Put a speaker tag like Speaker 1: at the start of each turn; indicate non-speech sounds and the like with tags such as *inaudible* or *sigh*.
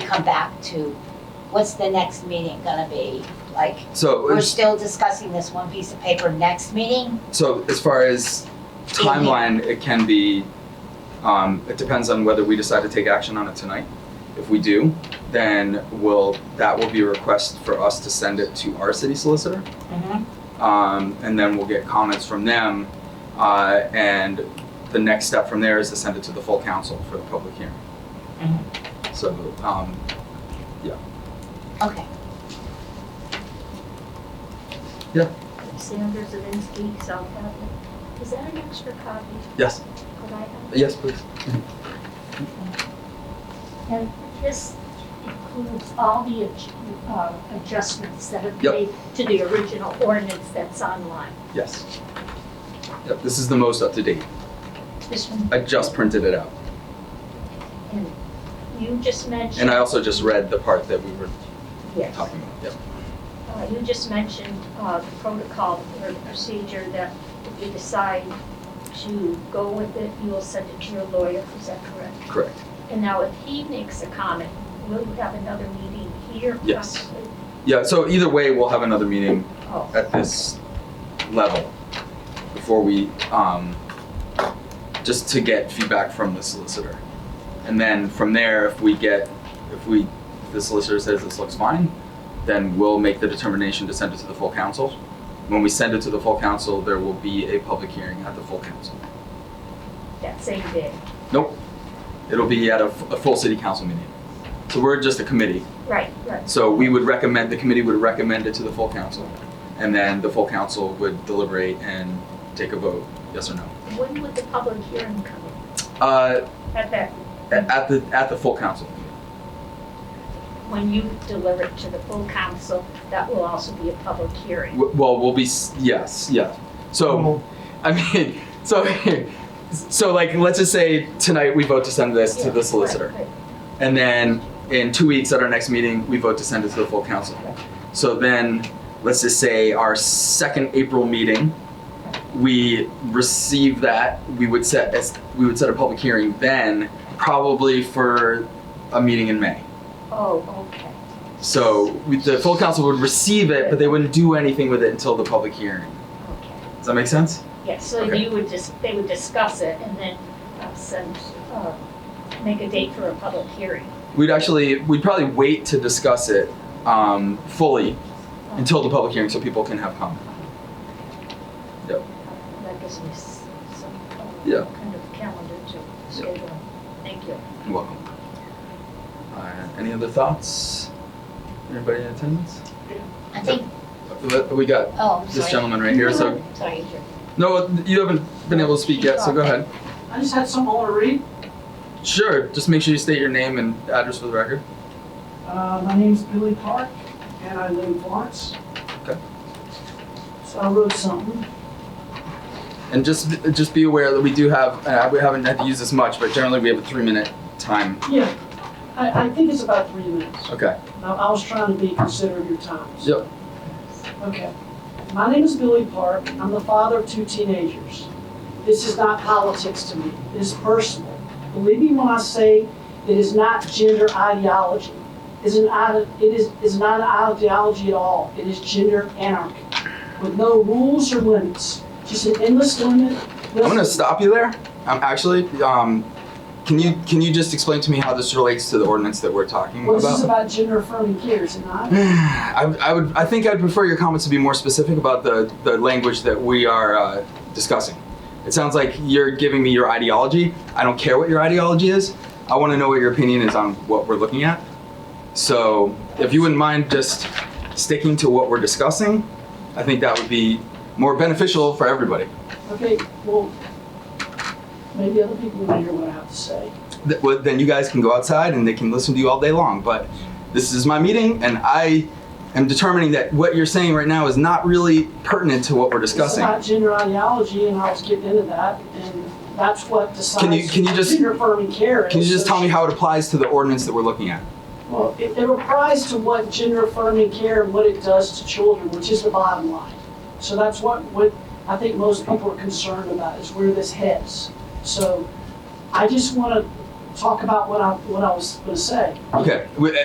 Speaker 1: come back to, what's the next meeting gonna be? Like,
Speaker 2: So
Speaker 1: we're
Speaker 2: it's-
Speaker 1: still discussing this one piece of paper next meeting?
Speaker 2: so as far as timeline, it can be. Um, it depends on whether we decide to take action on it tonight. If we do, then will that will be a request for us to send it to our city solicitor.
Speaker 1: Mm-hmm.
Speaker 2: um, and then we'll get comments from them. Uh, and the next step from there is to send it to the full council for the public hearing. So, um,
Speaker 1: Okay,
Speaker 3: Sandra Zavinsky, South Hadley. Is that an extra copy?
Speaker 2: yes,
Speaker 3: Could I have?
Speaker 2: yes, please.
Speaker 3: And this includes all the adj- uh, adjustments that have
Speaker 2: Yep.
Speaker 3: made to the original ordinance that's online.
Speaker 2: Yes. Yep, this is the most up to date.
Speaker 3: This one,
Speaker 2: I just printed it out,
Speaker 3: and you just mentioned.
Speaker 2: and Oh. I also just read the part that we were
Speaker 3: Yes.
Speaker 2: talking about. Yep.
Speaker 3: Uh, You just mentioned uh, the protocol or the procedure that if you decide to go with it, you will send it to your lawyer, is that correct?
Speaker 2: Correct.
Speaker 3: And now if he makes a comment, will you have another meeting here?
Speaker 2: Yes.
Speaker 3: possibly?
Speaker 2: Yeah. So either way, we'll have another meeting
Speaker 3: Oh,
Speaker 2: at this level before we, um, just to get feedback from the solicitor. And then from there, if we get, if we, if the solicitor says this looks fine, then we'll make the determination to send it to the full council. When we send it to the full council, there will be a public hearing at the full council.
Speaker 3: that same day,
Speaker 2: It'll be at a, f- a full city council meeting. So we're just a committee.
Speaker 3: right, right.
Speaker 2: So we would recommend, the committee would recommend it to the full council. And then the full council would deliberate and take a vote, yes or no.
Speaker 3: When would the public hearing come in?
Speaker 2: Uh,
Speaker 3: At that,
Speaker 2: at the, at the full council.
Speaker 3: when you deliver it to the full council, that will also be a public hearing.
Speaker 2: W- Well, we'll be, s- yes, yeah. So, I mean, *laughs* so, so like, let's just say tonight we vote to send this to
Speaker 3: Yeah,
Speaker 2: the
Speaker 3: right,
Speaker 2: solicitor.
Speaker 3: right.
Speaker 2: And then in two weeks at our next meeting, we vote to send it to the full council. So then, let's just say our second April meeting, we receive that, we would set, as- we would set a public hearing then, probably for a meeting in May.
Speaker 3: Oh, okay.
Speaker 2: So we- the full council would receive it, but they wouldn't do anything with it until the public hearing.
Speaker 3: Okay.
Speaker 2: Does that make sense?
Speaker 3: Yes, so
Speaker 2: Okay.
Speaker 3: you would just, they would discuss it and then uh, send, uh, make a date for a public hearing.
Speaker 2: We'd actually, we'd probably wait to discuss it um, fully until the public hearing so people can have comment.
Speaker 3: That gives me s- some uh,
Speaker 2: Yeah.
Speaker 3: kind of calendar to schedule. Thank you.
Speaker 2: You're welcome. Uh, any other thoughts? Anybody in attendance?
Speaker 1: I think,
Speaker 2: Uh, We got
Speaker 1: oh, I'm
Speaker 2: this
Speaker 1: sorry.
Speaker 2: gentleman right here, so,
Speaker 1: Sorry, Drew.
Speaker 2: no, you haven't been able to speak yet, so go ahead.
Speaker 4: I just had something I want to read.
Speaker 2: Sure, just make sure you state your name and address for the record.
Speaker 4: Uh, my name's Billy Park, and I live in Florence.
Speaker 2: Okay.
Speaker 4: So I wrote something.
Speaker 2: And just, just be aware that we do have, uh, we haven't had to use this much, but generally we have a three-minute time.
Speaker 4: Yeah, I, I think it's about three minutes.
Speaker 2: Okay,
Speaker 4: Now, I was trying to be considerate of your time. so-
Speaker 2: Yep.
Speaker 4: Okay. My name is Billy Park. I'm the father of two teenagers. This is not politics to me. This is personal. Believe me when I say it is not gender ideology. It's an, ide- it is, it's not an ideology at all. It is gender anarchy with no rules or limits, just an endless limit.
Speaker 2: I'm gonna stop you there. Um, actually, um, can you, can you just explain to me how this relates to the ordinance that we're talking
Speaker 4: Well, this is
Speaker 2: about?
Speaker 4: about gender affirming care, is it not?
Speaker 2: I, I would, I think I'd prefer your comments to be more specific about the, the language that we are, uh, discussing. It sounds like you're giving me your ideology. I don't care what your ideology is. I wanna know what your opinion is on what we're looking at. So if you wouldn't mind just sticking to what we're discussing, I think that would be more beneficial for everybody.
Speaker 4: Okay, well, maybe other people want to hear what I have to say.
Speaker 2: th- well, then you guys can go outside and they can listen to you all day long. But this is my meeting, and I am determining that what you're saying right now is not really pertinent to what we're discussing.
Speaker 4: It's about gender ideology, and I was getting into that, and that's what decides.
Speaker 2: Can you- can you just-
Speaker 4: Gender affirming care.
Speaker 2: Can you
Speaker 4: is.
Speaker 2: just tell me how it applies to the ordinance that we're looking at?
Speaker 4: Well, it, it applies to what gender affirming care and what it does to children, which is the bottom line. So that's what, what I think most people are concerned about, is where this heads. So I just wanna talk about what I, what I was gonna say.
Speaker 2: Okay, we-